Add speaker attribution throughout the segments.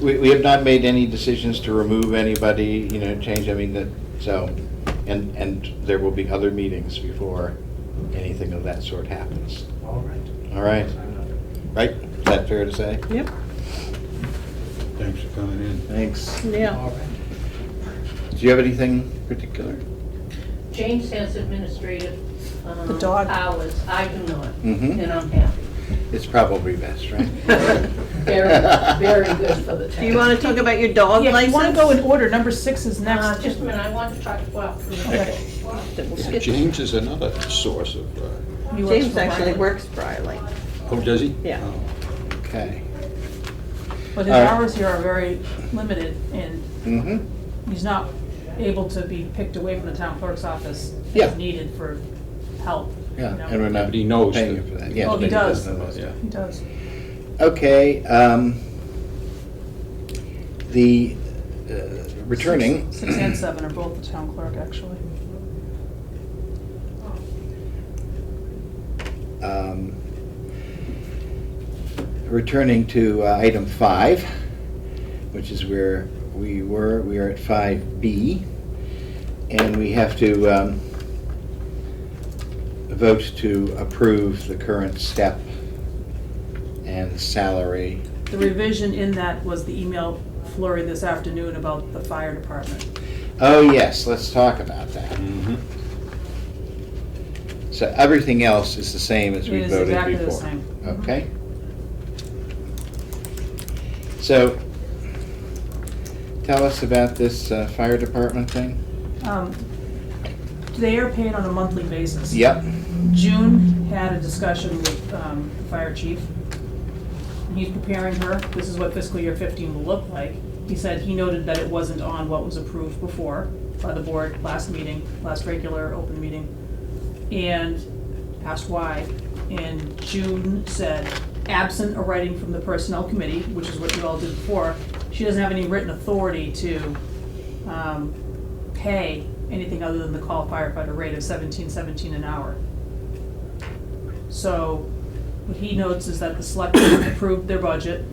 Speaker 1: We, we have not made any decisions to remove anybody, you know, change, I mean, that, so, and, and there will be other meetings before anything of that sort happens.
Speaker 2: All right.
Speaker 1: All right, right? Is that fair to say?
Speaker 3: Yep,
Speaker 4: Thanks for coming in.
Speaker 1: Thanks.
Speaker 3: yeah.
Speaker 2: All right.
Speaker 1: Do you have anything particular?
Speaker 5: James has administrative um,
Speaker 3: The dog.
Speaker 5: hours. I do not,
Speaker 1: Mhm.
Speaker 5: and I'm happy.
Speaker 1: It's probably best, right?
Speaker 5: Very, very good for the town.
Speaker 3: Do you want to talk about your dog
Speaker 6: Yeah,
Speaker 3: license?
Speaker 6: if you want to go in order, number six is
Speaker 5: Uh,
Speaker 6: next.
Speaker 5: Just a minute, I want to talk, well,
Speaker 1: Okay.
Speaker 4: James is another source of, uh,
Speaker 6: He works
Speaker 3: James
Speaker 6: for
Speaker 3: actually
Speaker 6: Riley.
Speaker 3: works for Riley.
Speaker 4: oh, does he?
Speaker 3: Yeah.
Speaker 4: Oh,
Speaker 1: Okay.
Speaker 6: But his
Speaker 1: All right.
Speaker 6: hours here are very limited, and
Speaker 1: Mm-hmm.
Speaker 6: he's not able to be picked away from the town clerk's office
Speaker 1: Yeah.
Speaker 6: if needed for help. you
Speaker 1: Yeah,
Speaker 6: know?
Speaker 1: and we're not.
Speaker 4: But he knows
Speaker 1: paying
Speaker 4: that-
Speaker 1: you for that. Yeah,
Speaker 6: Oh, he
Speaker 1: but
Speaker 6: does.
Speaker 1: know those.
Speaker 4: Yeah.
Speaker 6: He does.
Speaker 1: Okay, um, the uh, returning.
Speaker 6: Six and seven are both the town clerk, actually.
Speaker 1: um, Returning to uh, item five, which is where we were, we are at five B. And we have to um, vote to approve the current step and salary.
Speaker 6: The revision in that was the email flurry this afternoon about the fire department.
Speaker 1: Oh, yes, let's talk about that.
Speaker 4: mhm.
Speaker 1: So everything else is the same as we
Speaker 6: It is
Speaker 1: voted before?
Speaker 6: exactly the same. Mm-hmm.
Speaker 1: Okay. So, tell us about this uh, fire department thing.
Speaker 6: Um, They are paid on a monthly basis.
Speaker 1: Yep,
Speaker 6: June had a discussion with um, the fire chief. And He's preparing her, this is what fiscal year 15 will look like. He said he noted that it wasn't on what was approved before by the board last meeting, last regular open meeting, and asked why. And June said, absent a writing from the personnel committee, which is what you all did before, she doesn't have any written authority to um, pay anything other than the call firefighter rate of 17.17 an hour. So what he notes is that the selectmen approved their budget,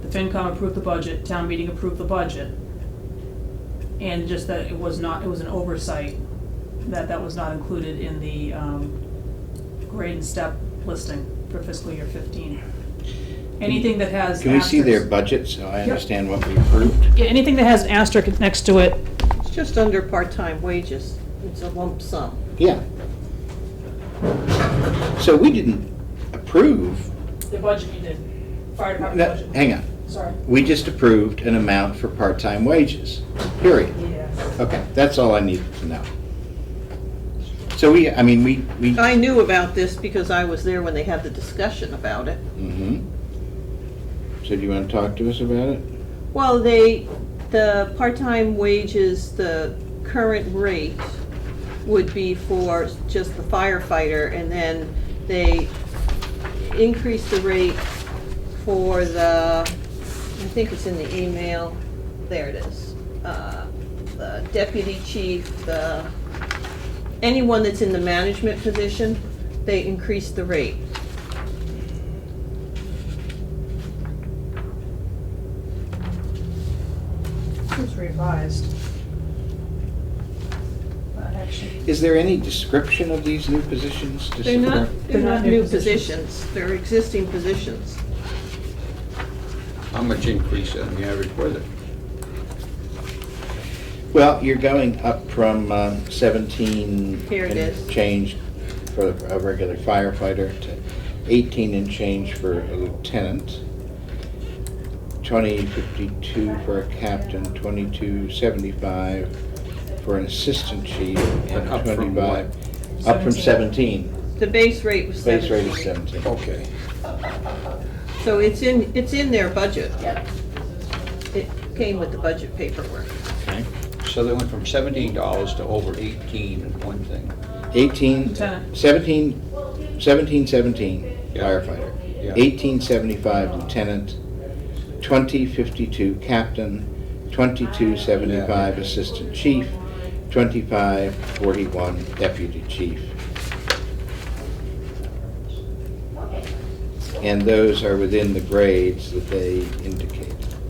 Speaker 6: the FinCom approved the budget, town meeting approved the budget. And just that it was not, it was an oversight, that that was not included in the um, grade and step listing for fiscal year fifteen. Anything that has
Speaker 1: can we see their
Speaker 6: asterisks-
Speaker 1: budget so I understand what we approved?
Speaker 6: Yeah, anything that has an asterisk next to it
Speaker 3: It's just under part-time wages. It's a lump sum.
Speaker 1: Yeah. So we didn't approve,
Speaker 6: The budget you did, fire
Speaker 1: no,
Speaker 6: department budget,
Speaker 1: hang on,
Speaker 6: sorry.
Speaker 1: we just approved an amount for part-time wages, period.
Speaker 6: Yes.
Speaker 1: Okay, that's all I needed to know. So we, I mean, we, we.
Speaker 3: I knew about this because I was there when they had the discussion about it.
Speaker 1: Mhm. So do you want to talk to us about it?
Speaker 3: Well, they, the part-time wages, the current rate would be for just the firefighter, and then they increased the rate for the, I think it's in the email, there it is. Uh, The deputy chief, the, anyone that's in the management position, they increased the rate.
Speaker 6: It was revised. Uh, Actually,
Speaker 1: Is there any description of these new positions to
Speaker 3: They're not,
Speaker 1: support?
Speaker 3: they're not new positions, they're existing positions.
Speaker 4: How much increase on the average was it?
Speaker 1: Well, you're going up from um, 17.
Speaker 3: Here it
Speaker 1: and
Speaker 3: is.
Speaker 1: Change for a regular firefighter to 18 and change for a lieutenant. 2052 for a captain, 2275 for an assistant chief, and
Speaker 4: And up from
Speaker 1: 25. Up from 17.
Speaker 3: The base rate was
Speaker 1: Base rate is
Speaker 3: seventeen,
Speaker 1: 17.
Speaker 4: Okay.
Speaker 3: so it's in, it's in their budget. It came with the budget paperwork.
Speaker 1: Okay.
Speaker 4: So they went from seventeen dollars to over eighteen in one thing.
Speaker 1: 18,
Speaker 6: Lieutenant.
Speaker 1: 17, 17, 17
Speaker 4: Yeah.
Speaker 1: firefighter.
Speaker 4: Yeah.
Speaker 1: 1875 lieutenant, 2052 captain, 2275 assistant chief, 2541 deputy chief. And those are within the grades that they indicate.